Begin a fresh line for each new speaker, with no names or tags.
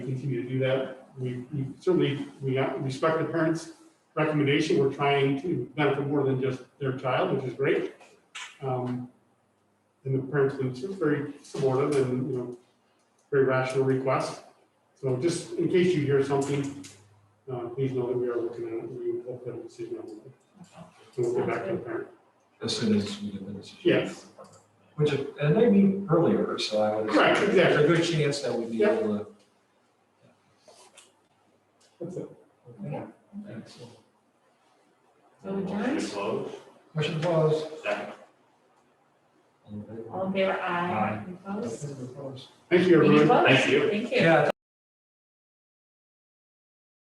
me to do that. We we certainly, we respect the parents' recommendation. We're trying to benefit more than just their child, which is great. Um, And the parents themselves very supportive and, you know, very rational request. So just in case you hear something, uh, please know that we are looking at it. We will put a decision on it. So we'll get back to the parent.
as soon as we get the decision.
Yes.
Which, it- and they meet earlier, so I would.
Right, exactly.
There's a good chance that we'd be able to.
That's it.
Okay, thanks.
So
Motion to
adjourned,
close.
Motion closed.
Second.
All in favor?
all in favor, aye. Opposed?
Opposed?
Thank you,
Meeting
everyone.
closed.
Thank you.
Thank you.
Yeah,